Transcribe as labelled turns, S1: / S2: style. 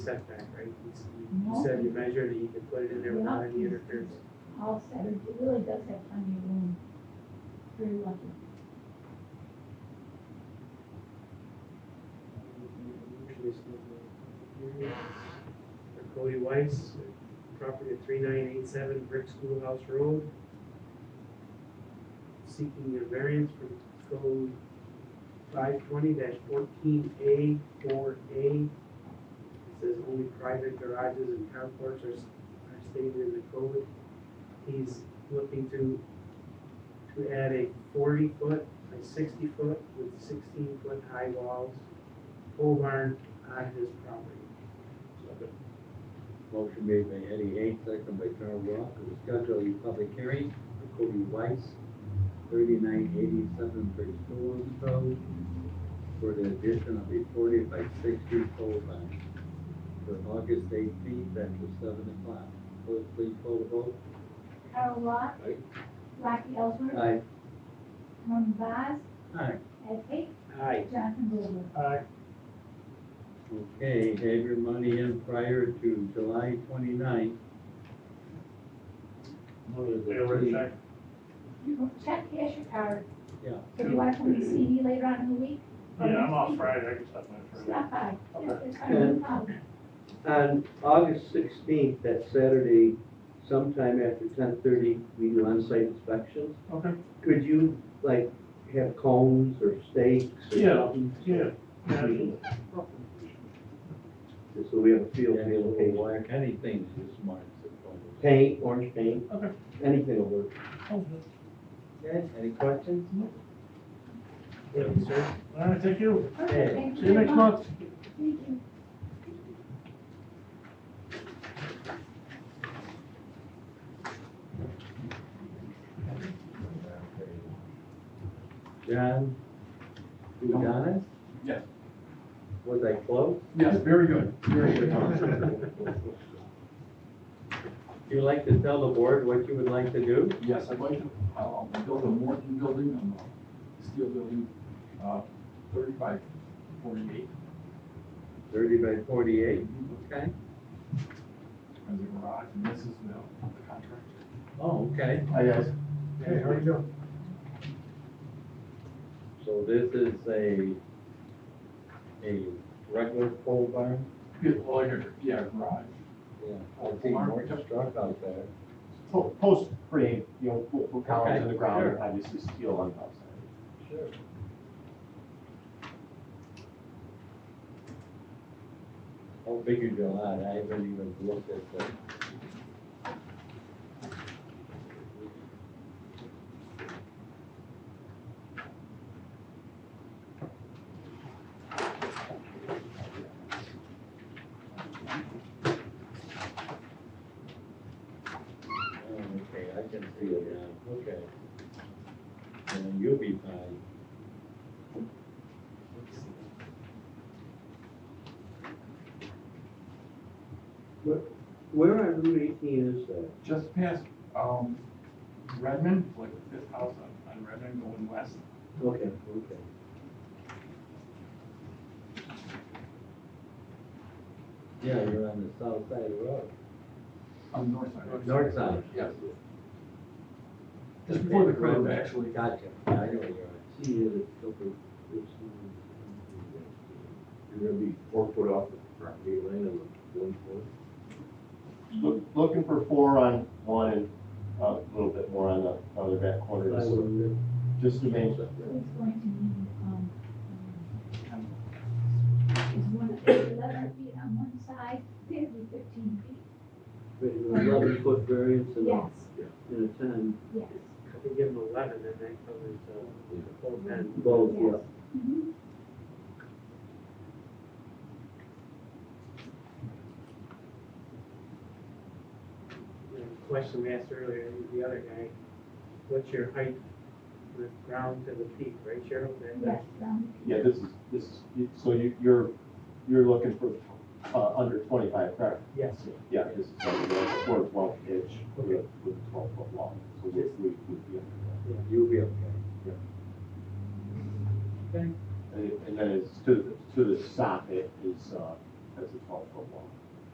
S1: setback, right? You s- You
S2: No.
S1: said you measured it, you could put it in there without any interference.
S2: All centered, it really does have plenty of room. Very lucky.
S1: For Cody Weiss, property at three nine eight seven Brick Schoolhouse Road. Seeking a variance from code five twenty fourteen A four A. It says only private garages and carports are, s- are stated in the code. He's looking to, to add a forty foot by sixty foot with sixteen foot high walls pole barn on his property.
S3: Motion made by Eddie Hay, second by Carl Rock, to schedule a public hearing for Cody Weiss, thirty-nine eighty-seven Brick School Road, for the addition of a forty by sixty pole barn for August eighteenth after seven o'clock. Clerk, please call the vote.
S2: Carl Rock.
S3: Aye.
S2: Rocky Ellsworth.
S4: Uh.
S3: Aye.
S2: Tony Vaz.
S3: Aye.
S2: Ed Hick.
S1: Aye.
S2: Jonathan Goldberg.
S1: Aye.
S3: Okay, have your money in prior to July twenty-ninth.
S2: Check cash your card.
S3: Yeah.
S2: So do you want to come to CD later on in the week? Or
S4: Yeah, I'm
S2: next
S4: off
S2: week?
S4: Friday, I can stop my Friday.
S2: Stop by. Yeah,
S4: Okay.
S2: it's fine, no problem.
S5: On August sixteenth, that Saturday, sometime after ten thirty, we do on-site inspections.
S4: Okay,
S5: Could you, like, have cones or stakes or
S4: Yeah.
S5: something?
S4: yeah, yeah, absolutely.
S5: Just so we have a feel for the location.
S3: Black, anything's just marked.
S5: Paint, orange paint,
S4: Okay.
S5: anything will work.
S4: All
S3: Okay, any questions?
S1: Yes, sir.
S4: right, thank you.
S2: Perfect, thank
S4: See you
S2: very
S4: next month.
S2: Thank you.
S3: John? You got it?
S6: Yes.
S3: Was I close?
S6: Yes, very good, very good.
S3: Do you like to tell the board what you would like to do?
S6: Yes, I'd like to, uh, build a Morton building, um, a steel building, uh, thirty-five, forty-eight,
S3: Thirty by forty-eight, okay?
S6: as a garage, and this is the, the contract.
S3: Oh, okay.
S6: Hi, guys.
S1: Hey, how are you doing?
S3: So this is a, a regular pole barn?
S6: Yeah, well, your, yeah, garage,
S3: Yeah.
S6: Pole
S3: See,
S6: barn.
S3: more truck out there.
S7: Po- Post frame, you know, we'll put columns in the ground,
S3: sure.
S7: obviously steel on top side.
S3: Sure. How big is your lot? I haven't even looked at that. Oh, Okay, I can see it now, okay. And you'll be fine.
S5: Where on Route eighteen is that?
S6: just past, um, Redmond, like the fifth house on, on Redmond going west.
S5: Okay, okay.
S3: Yeah, you're on the south side of the road.
S6: On the north side.
S3: North side.
S6: Yes. Just before the curve, actually.
S3: Gotcha, I know where you're at.
S5: See, you in a couple, it's, um,
S8: You're gonna be four foot off the property line on the one foot.
S7: Look, looking for four on one and uh, a little bit more on the other back corner,
S5: I
S7: just-
S5: would-
S7: just to make,
S2: It's going to need, um, is one, eleven feet on one side, it'd be fifteen feet.
S5: But an eleven foot variance and a,
S2: Yes,
S5: and a ten,
S2: yes.
S1: I could give him eleven, and that covers, uh, the full ten.
S5: both, yeah.
S2: Yes. Mhm.
S1: The question we asked earlier, the other guy, what's your height from the ground to the peak, right, Cheryl? uh, That-
S2: Yes,
S1: that-
S2: um,
S7: yeah, this is, this is, so you, you're, you're looking for, uh, under twenty-five, correct?
S1: Yes.
S7: Yeah, this is like four twelve inch with, with twelve foot long, so we, we, we'd be under that.
S3: You'll be okay.
S7: And and then it's to, to the socket is, uh, has a twelve foot wall.